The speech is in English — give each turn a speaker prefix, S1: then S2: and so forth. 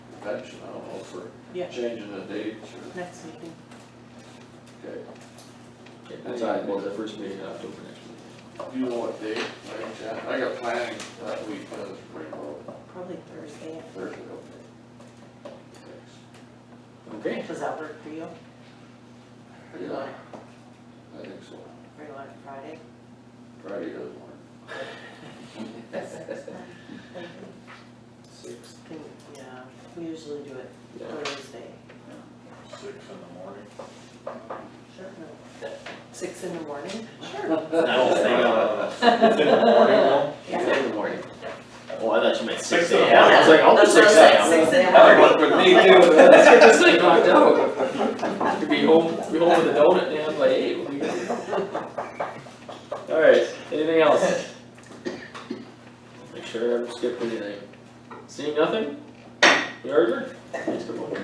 S1: convention, I don't know if we're
S2: Yeah,
S1: changing the dates or,
S2: next meeting.
S1: okay.
S3: Okay,
S1: That's all right.
S3: Well, the first meeting in October next week.
S1: Do you know what date, like, Jan- I got planning that week, but it's pretty low,
S2: Probably Thursday.
S1: Thursday, okay. Thanks.
S3: Okay,
S2: Does that work for you? Or do you want
S1: Yeah, I
S2: it,
S1: think so,
S2: or do you want it Friday?
S1: Friday doesn't work.
S3: six,
S2: Can- Yeah, we usually do it
S3: yeah,
S2: Thursday.
S4: Six in the morning.
S2: Sure. Six in the morning? Sure.
S4: It's in the morning, though.
S3: it's in the morning. Oh, I thought you meant six
S4: Six in the
S3: AM, I was like, I'll do
S2: That's what
S3: six
S2: I'm saying,
S3: AM.
S2: Six in the
S3: That
S2: morning.
S3: would work with me too, let's get this thing knocked out. Could be home, be home with a donut, damn, by eight. we'll be good. Alright, anything else? Make sure I haven't skipped anything. Seeing nothing? We are adjourned. Thanks, everyone.